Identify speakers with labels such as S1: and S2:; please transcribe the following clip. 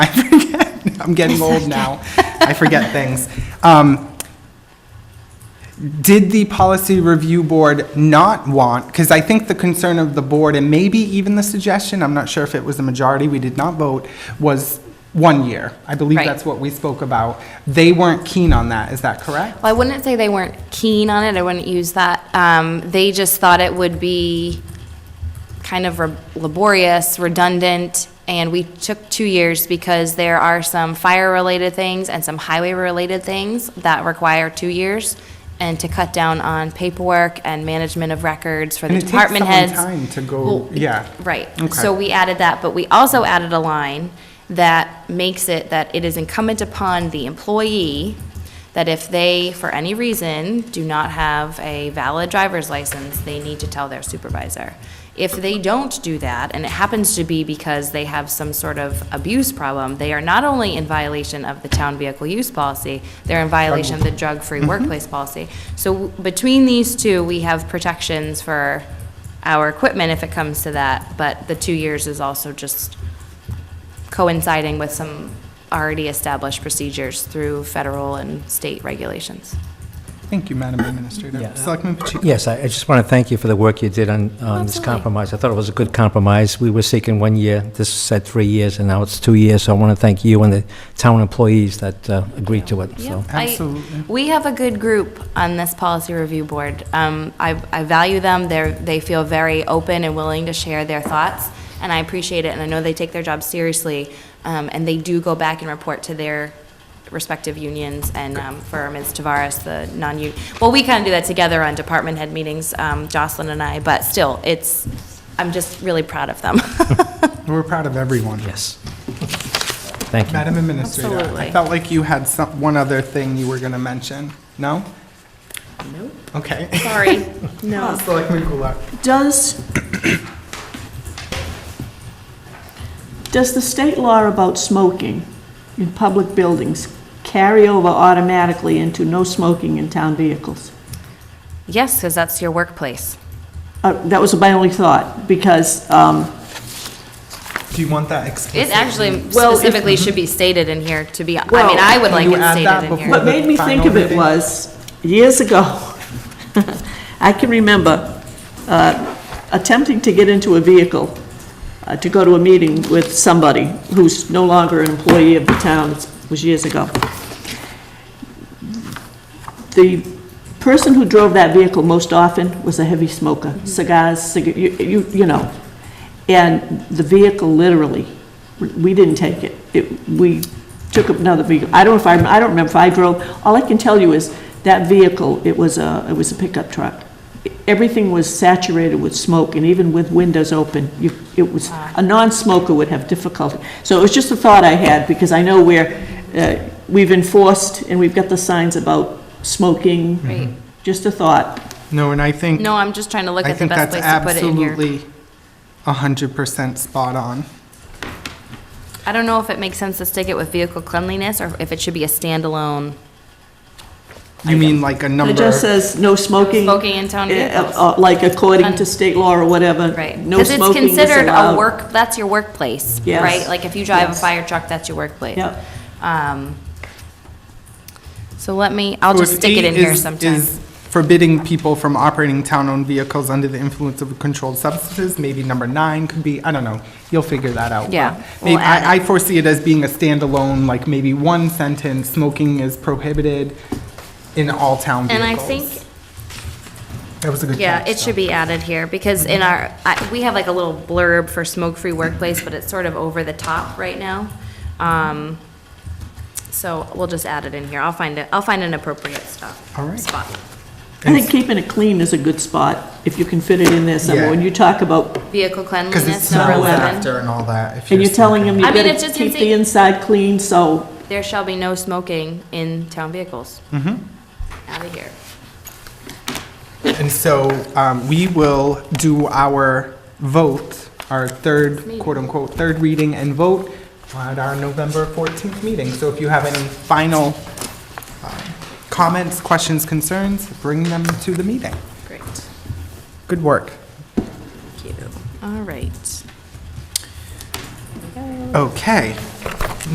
S1: I'm getting old now. I forget things. Um, did the policy review board not want, because I think the concern of the board, and maybe even the suggestion, I'm not sure if it was a majority, we did not vote, was one year. I believe
S2: Right.
S1: that's what we spoke about. They weren't keen on that, is that correct?
S2: Well, I wouldn't say they weren't keen on it, I wouldn't use that. Um, They just thought it would be kind of re- laborious, redundant, and we took two years because there are some fire-related things and some highway-related things that require two years, and to cut down on paperwork and management of records for the
S1: And it takes
S2: department
S1: someone
S2: heads.
S1: time to go-
S2: Well,
S1: yeah.
S2: Right.
S1: Okay.
S2: So we added that, but we also added a line that makes it that it is incumbent upon the employee that if they, for any reason, do not have a valid driver's license, they need to tell their supervisor. If they don't do that, and it happens to be because they have some sort of abuse problem, they are not only in violation of the town vehicle use policy, they're in violation of the drug-free workplace policy. So w- between these two, we have protections for our equipment if it comes to that, but the two years is also just coinciding with some already established procedures through federal and state regulations.
S1: Thank you, Madam Administrator. Selectman Pacheco?
S3: Yes, I I just want to thank you for the work you did on, on this
S2: Absolutely.
S3: compromise. I thought it was a good compromise. We were seeking one year, this said three years, and now it's two years, so I want to thank you and the town employees that uh, agreed to it, so.
S2: I-
S1: Absolutely.
S2: We have a good group on this policy review board. Um, I, I value them, they're, they feel very open and willing to share their thoughts, and I appreciate it, and I know they take their job seriously, um, and they do go back and report to their respective unions, and um, for Ms. Tavares, the non-union, well, we kind of do that together on department head meetings, um, Jocelyn and I, but still, it's, I'm just really proud of them.
S1: We're proud of everyone.
S3: Yes. Thank you.
S1: Madam Administrator, I
S2: Absolutely.
S1: felt like you had some, one other thing you were going to mention. No?
S2: Nope.
S1: Okay.
S2: Sorry.
S1: Ah,
S4: No.
S1: Selectman Goulart?
S4: Does, does the state law about smoking in public buildings carry over automatically into no smoking in town vehicles?
S2: Yes, because that's your workplace.
S4: Uh, That was my only thought, because, um,
S1: Do you want that explicit?
S2: It actually
S4: Well, if-
S2: specifically should be stated in here, to be, I
S4: Well-
S2: mean, I would
S1: Can
S2: like
S1: you
S2: it
S1: add that
S2: stated in
S1: before-
S2: here.
S4: What made me think of it
S1: Final
S4: was, years ago, I can remember uh, attempting to get into a vehicle uh, to go to a meeting with somebody who's no longer an employee of the town, it was years ago. The person who drove that vehicle most often was a heavy smoker, cigars, cigar, you, you you know. And the vehicle literally, we didn't take it. It, we took another vehicle. I don't know if I, I don't remember if I drove. All I can tell you is that vehicle, it was a, it was a pickup truck. Everything was saturated with smoke and even with windows open, you, it was, a non-smoker would have difficulty. So it was just a thought I had because I know where, uh, we've enforced and we've got the signs about smoking.
S2: Right.
S4: Just a thought.
S1: No, and I think,
S2: No, I'm just trying to look
S1: I
S2: at the
S1: think
S2: best
S1: that's
S2: place to put it in here.
S1: absolutely 100% spot on.
S2: I don't know if it makes sense to stick it with vehicle cleanliness, or if it should be a standalone.
S1: You mean like a number?
S4: It just
S2: uh,
S4: says no smoking.
S2: smoking in town
S4: eh,
S2: vehicles.
S4: uh, Like according to state law or whatever.
S2: Right.
S4: No smoking
S2: Because
S4: is
S2: it's considered a
S4: allowed.
S2: work, that's your workplace,
S4: Yes.
S2: right? Like, if you drive a
S4: Yes.
S2: fire truck, that's your workplace.
S4: Yep.
S2: Um, So let me, I'll
S1: So
S2: just
S1: if
S2: stick
S1: eight
S2: it in here
S1: is-
S2: sometime.
S1: is Forbidding people from operating town-owned vehicles under the influence of controlled substances, maybe number nine could be, I don't know, you'll figure that out.
S2: Yeah,
S1: but
S2: we'll
S1: Maybe,
S2: add
S1: I, I foresee it as being a standalone, like maybe one sentence, smoking is prohibited in all town
S2: And
S1: vehicles.
S2: I think
S1: That was a good
S2: Yeah,
S1: catch,
S2: it should
S1: though.
S2: be added here, because
S1: Mm-hmm.
S2: in our, I- we have like a little blurb for smoke-free workplace, but it's sort of over the top right now. Um, So we'll just add it in here. I'll find it, I'll find an appropriate stop.
S1: All right.
S2: Spot.
S4: I think keeping it clean is a good spot, if you can fit it in there somewhere. When
S1: Yeah.
S4: you talk about,
S2: Vehicle
S1: Because it's
S2: cleanliness, Mm, number
S1: smells
S2: 11.
S1: after and all that. if
S4: and you're telling them
S1: smoking.
S4: you
S2: I mean,
S4: gotta
S2: it's just
S4: keep the
S2: insane.
S4: inside clean, so,
S2: There shall be no smoking in town vehicles. Mm-hmm. Out of here.
S1: And so um, we will do our vote, our third, quote-unquote, third reading and vote at our November 14th meeting. So if you have any final um, comments, questions, concerns, bring them to the meeting.
S2: Great.
S1: Good work.
S2: Thank you. All right.
S1: Okay.